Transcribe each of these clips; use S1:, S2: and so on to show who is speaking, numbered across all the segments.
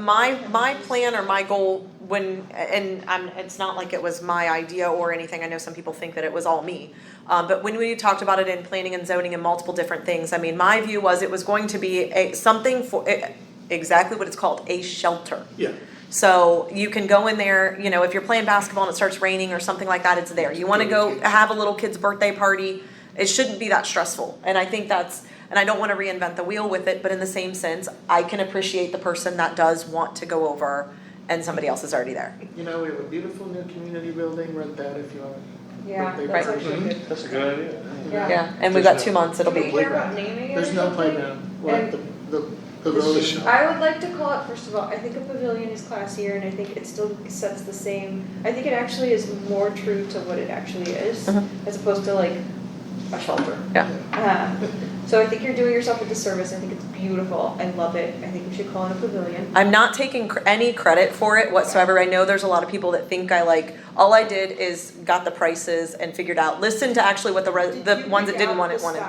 S1: my, my plan or my goal when, and I'm, it's not like it was my idea or anything, I know some people think that it was all me. Um, but when we talked about it in planning and zoning and multiple different things, I mean, my view was it was going to be a, something for, eh, exactly what it's called, a shelter.
S2: Yeah,
S1: So you can go in there, you know, if you're playing basketball and it starts raining or something like that, it's there. You want to go have a little kid's birthday party. It shouldn't be that stressful. And I think that's, and I don't want to reinvent the wheel with it, but in the same sense, I can appreciate the person that does want to go over and somebody else is already there.
S3: You know, we have a beautiful new community building, rent that if you want.
S4: Yeah,
S3: Birthday
S4: that's
S3: party.
S4: actually good.
S5: That's a good idea.
S1: Yeah, and we've got two months, it'll
S4: Do we
S1: be.
S4: care about naming it or
S3: There's no
S4: something?
S3: playground, we're at the, the
S2: This
S3: pavilion.
S2: is-
S4: I would like to call it, first of all, I think a pavilion is classier and I think it still sets the same, I think it actually is more true to what it actually is,
S1: Mhm.
S4: as opposed to like a shelter.
S1: Yeah.
S4: Uh, So I think you're doing yourself a disservice, I think it's beautiful, I love it, I think we should call it a pavilion.
S1: I'm not taking cr- any credit for it whatsoever. I know there's a lot of people that think I like, all I did is got the prices and figured out, listened to actually what the, re- Uh, the ones that didn't want it wanted.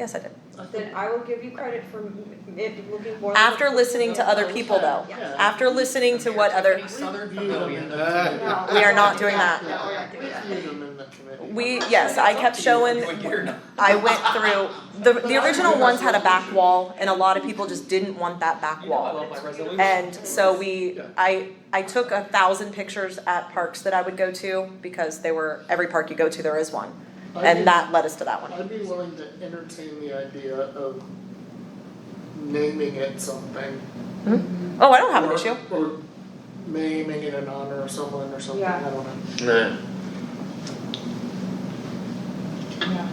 S1: Yes, I did.
S4: Then I will give you credit for m- it looking more. like
S1: After
S4: a-
S1: listening to other people though.
S3: Yeah.
S1: After listening to what other,
S3: Southern
S2: pavilion.
S4: No.
S1: we are not doing that.
S3: Yeah,
S4: No, we're not doing that.
S3: we viewed them in the committee.
S1: We, yes, I kept showing, I went through, the, the original ones had a back wall and a lot of people just didn't want that back wall. And so we, I, I took a thousand pictures at parks that I would go to because they were, every park you go to, there is one. And that led us to that one.
S3: I'd be willing to entertain the idea of naming it something.
S1: Oh, I don't have an
S3: or-
S1: issue.
S3: Or naming it in honor of someone or something, I
S4: Yeah.
S3: don't know.
S2: Yeah.
S4: Yeah.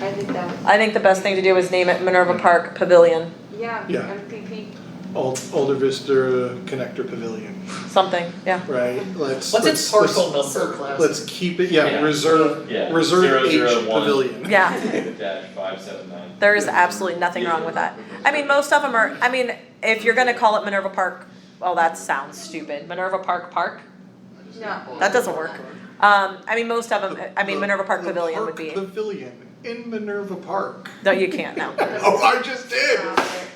S4: I think that,
S1: I think the best thing to do is name it Minerva Park Pavilion,
S4: yeah,
S2: Yeah.
S4: MPP,
S2: Old, Older Vista Connector Pavilion,
S1: something, yeah.
S2: right? Let's.
S6: What's
S2: let's-
S6: its parcel
S3: It's so
S6: number?
S3: classic.
S2: Let's keep it,
S6: Yeah.
S2: yeah, reserve,
S5: Yeah.
S2: reserve
S5: Zero,
S2: H
S5: zero, one.
S2: pavilion.
S1: Yeah.
S5: Dash five seven nine.
S1: There is absolutely nothing wrong with that. I mean, most of them are, I mean, if you're gonna call it Minerva Park, well, that sounds stupid, Minerva Park Park.
S4: no,
S1: That doesn't work. Um, I mean, most of them, I mean, Minerva Park
S2: The- the
S1: Pavilion would
S2: park
S1: be,
S2: Pavilion in Minerva Park.
S1: no, you can't, no.
S2: Oh, I just did.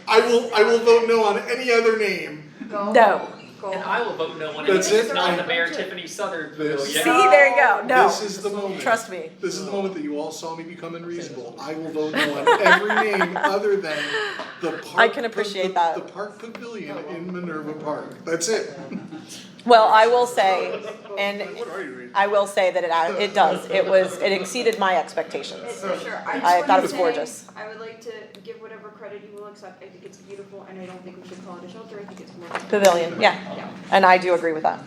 S2: I will, I will vote no on any other name.
S4: go.
S1: No.
S4: Go.
S6: And I will vote no one,
S2: That's
S6: it's
S2: it?
S6: not the
S2: I-
S6: Mayor Tiffany Southern
S2: This-
S6: pavilion.
S1: See, there you go,
S2: This
S1: no,
S2: is the moment.
S1: trust me.
S2: This is the moment that you all saw me become unreasonable. I will vote no on every name other than the park.
S1: I can appreciate
S2: the-
S1: that.
S2: The park pavilion in Minerva Park. That's it.
S1: Well, I will say, and
S2: What are you reading?
S1: I will say that it, I- it does, it was, it exceeded my
S4: It-
S1: expectations.
S4: For sure,
S1: I
S4: I just
S1: thought it
S4: wanna
S1: was
S4: say,
S1: gorgeous.
S4: I would like to give whatever credit you will accept, I think it's beautiful, and I don't think we should call it a shelter, I think it's more.
S1: Pavilion, yeah,
S4: Yeah.
S1: and I do agree with that.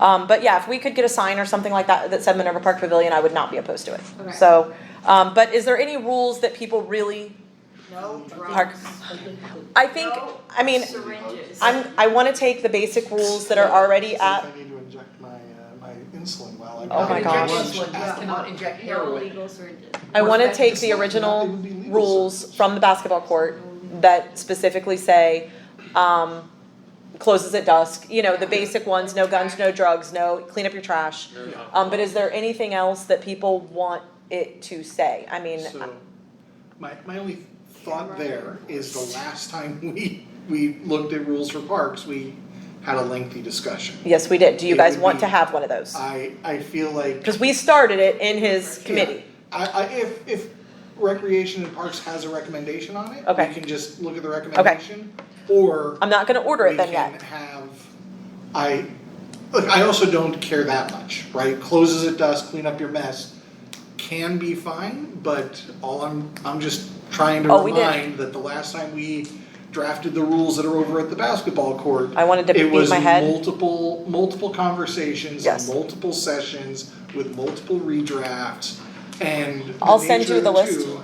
S1: Um, but yeah, if we could get a sign or something like that that said Minerva Park Pavilion, I would not be opposed to it.
S4: Okay.
S1: So, um, but is there any rules that people really
S4: No drugs.
S1: Park- I think,
S4: No
S1: I mean,
S4: syringes.
S1: I'm, I wanna take the basic rules that are already
S2: It's
S1: at,
S2: like I need to inject my, uh, my insulin while I'm.
S1: Oh my
S2: having
S1: gosh.
S2: lunch.
S7: Injection
S3: Yeah.
S7: ones cannot inject
S4: No
S7: heroin.
S4: illegal syringes.
S1: I wanna take
S2: It's
S1: the
S2: not-
S1: original
S2: it would be legal.
S1: rules from the basketball court that specifically say, um, closes at dusk, you know, the basic ones, no guns, no drugs, no, clean up your trash. Um, but is there anything else that people want it to say? I mean,
S2: So, my, my only thought there is the last time we, we looked at rules for parks, we had a lengthy discussion.
S1: yes, we did. Do you
S2: It
S1: guys
S2: would
S1: want to
S2: be-
S1: have one of those?
S2: I, I feel like.
S1: Cause we started it in his committee.
S2: I, I, if, if Recreation and Parks has a recommendation on it,
S1: Okay.
S2: we can just look at the recommendation. Or
S1: I'm not gonna order
S2: we
S1: it then
S2: can
S1: yet.
S2: have, I, look, I also don't care that much, right? Closes at dusk, clean up your mess, can be fine, but all I'm, I'm just trying to
S1: Oh, we did.
S2: remind that the last time we drafted the rules that are over at the basketball court,
S1: I wanted to
S2: it
S1: beat
S2: was
S1: my head.
S2: multiple multiple conversations,
S1: Yes.
S2: multiple sessions with multiple redrafts, and the
S1: I'll send you
S2: nature
S1: the
S2: of
S1: list.
S2: two-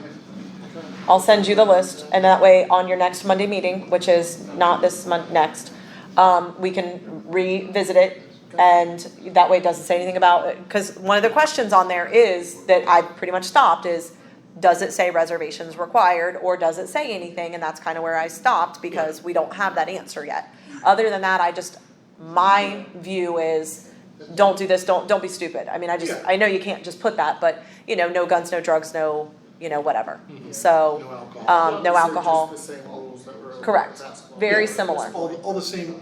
S1: I'll send you the list, and that way, on your next Monday meeting, which is not this month, next, um, we can revisit it. And that way it doesn't say anything about, it. cause one of the questions on there is, that I pretty much stopped, is does it say reservations required, or does it say anything, and that's kinda where I stopped, because we don't have that answer yet. Other than that, I just, my view is, don't do this, don't, don't be stupid, I mean, I just,
S2: Yeah.
S1: I know you can't just put that, but, you know, no guns, no drugs, no, you know, whatever, so.
S2: No alcohol.
S1: Um, no
S3: These are
S1: alcohol.
S3: just the same rules that were.
S1: Correct.
S3: basketball.
S1: Very
S2: Yeah,
S1: similar.
S2: All, all the same